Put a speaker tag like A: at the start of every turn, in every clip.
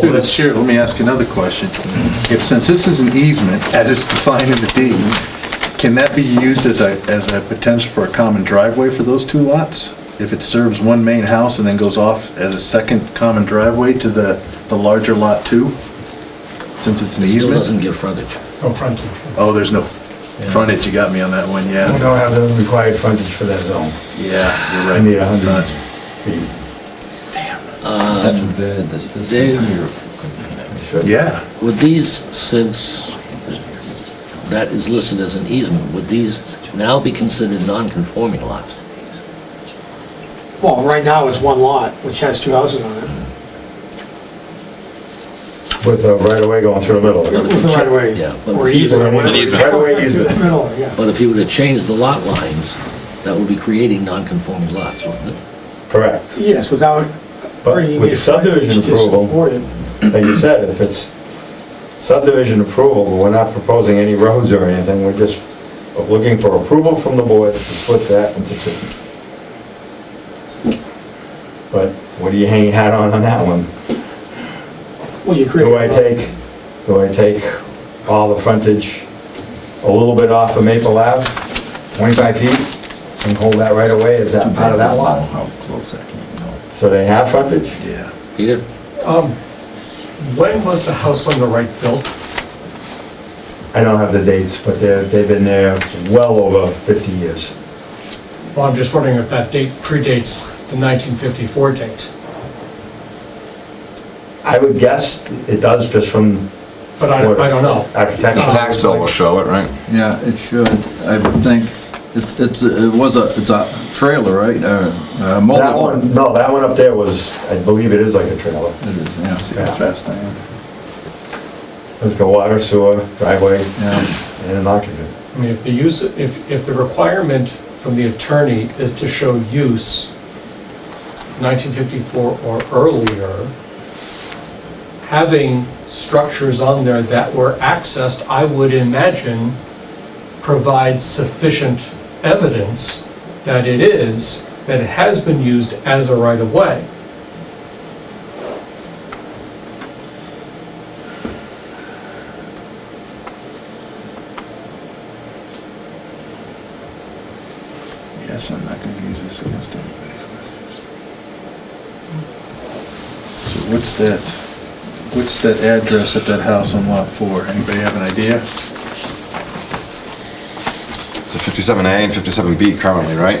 A: Through the chair, let me ask another question. If, since this is an easement, as it's defined in the deed, can that be used as a, as a potential for a common driveway for those two lots? If it serves one main house and then goes off as a second common driveway to the, the larger lot two? Since it's an
B: It still
A: easement?
B: doesn't give frontage.
C: No frontage.
A: Oh, there's no frontage, you got me on that one,
C: We
A: yeah.
C: don't Oh, have the required frontage for that zone.
A: Yeah, you're
C: I
A: right.
C: need a
A: it's
C: hundred
A: not-
C: feet.
A: Yeah,
B: Would these, since that is listed as an easement, would these now be considered non-conforming lots?
D: Well, right now it's one lot, which has two houses on it.
C: With a right of way going through the middle. of it.
D: It was the right of way.
B: Yeah, but-
D: Or easement.
C: An easement.
D: whatever.
C: Right of way easement.
D: Middle, yeah.
B: But if you were to change the lot lines, that would be creating non-conforming lots, wouldn't it?
C: Correct.
D: Yes, without
C: But
D: bringing
C: with
D: the frontage
C: subdivision
D: to
C: approval-
D: support it.
C: Like you said, if it's subdivision approval, we're not proposing any roads or anything, we're just looking for approval from the board to split that into two. But what do you hang your hat on on that one?
D: Well, you create.
C: Do I take, do I take all the frontage a little bit off of Maple Ave, 25 feet, and hold that right away? Is that part of that lot?
A: how close that can you know?
C: So they have frontage?
A: Yeah.
B: Peter?
E: Um, When was the house on the right built?
C: I don't have the dates, but they're, they've been there well over 50 years.
E: Well, I'm just wondering if that date predates the 1954 date.
C: I would guess it does just from
E: But I, I don't know.
C: architecture.
E: The
F: Tax bill will show it, right?
G: Yeah, it should, I would think. It's, it's, it was a, it's a trailer, right? Uh, a mobile
C: That one, no, that one up there was, I believe it is like a trailer.
G: It is,
A: See
G: yes,
A: how
C: Yeah.
A: fast I am.
C: There's got water, sewer, driveway,
G: yeah.
C: and an occupant.
E: I mean, if the use, if, if the requirement from the attorney is to show use 1954 or earlier, having structures on there that were accessed, I would imagine, provides sufficient evidence that it is, that it has been used as a right-of-way.
A: Yes, I'm not gonna use this against anybody's wishes. So what's that, what's that address at that house on lot four? Anybody have an idea?
F: The 57A and 57B currently,
C: I
F: right?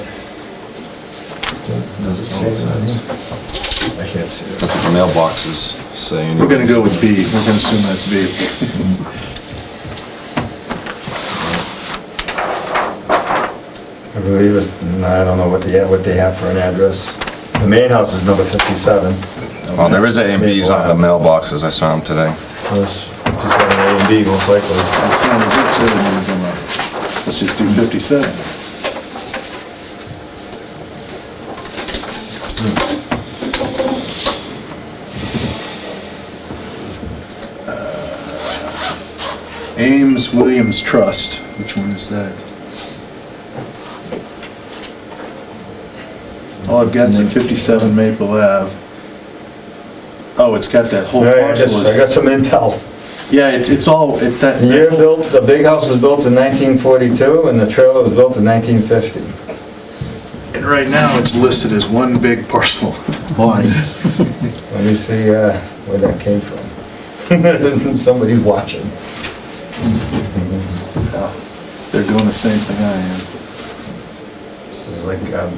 C: can't see it.
F: That's what the mailboxes say.
A: We're gonna go with B, we're gonna assume that's B.
C: I believe it, and I don't know what they, what they have for an address. The main house is number 57.
F: Well, there is A and Bs on the mailboxes, I saw them today.
C: There's 57 A and B most likely.
A: That sounded good, so I'm gonna come up. Let's just do fifty-seven. Uh, Ames Williams Trust, which one is that? All I've got is a fifty-seven Maple Ave. Oh, it's got that whole
C: All right, I
A: parcel.
C: got- I got
A: is-
C: some intel.
A: Yeah, it's, it's all, it, that.
C: The year built, the big house was built in 1942 and the trailer was built in 1950.
A: And right now, it's listed as one big parcel.
G: Bonnie,
C: Let me see uh, where that came from. Somebody's watching.
A: They're doing the same thing I am.
C: This is like um,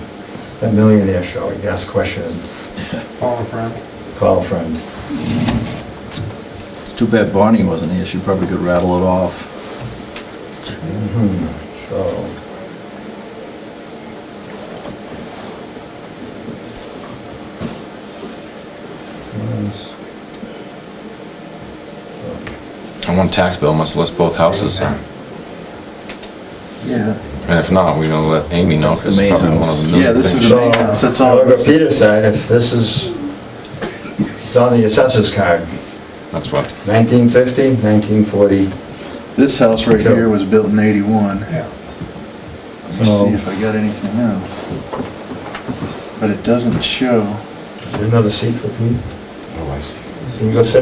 C: that millionaire show, you ask a question,
D: Follow friend.
C: call a friend.
G: it's too bad Bonnie wasn't here, she probably could rattle it off.
C: Mm-hmm. So,
F: And one tax bill must list both houses then.
A: Yeah.
F: And if not, we're gonna let Amy know,
G: That's the
F: because
G: main
F: probably one
G: house.
F: of the
A: Yeah,
F: new
A: this is
F: things.
A: the main house, that's all.
C: I'll go Peter's side, if this is, it's on the assessor's card,
F: That's what,
C: 1950, 1940.
A: This house right here was built in eighty-one.
C: Yeah.
A: Let me see if I got anything else. But it doesn't show.
C: Is there another seat for Pete? You can go sit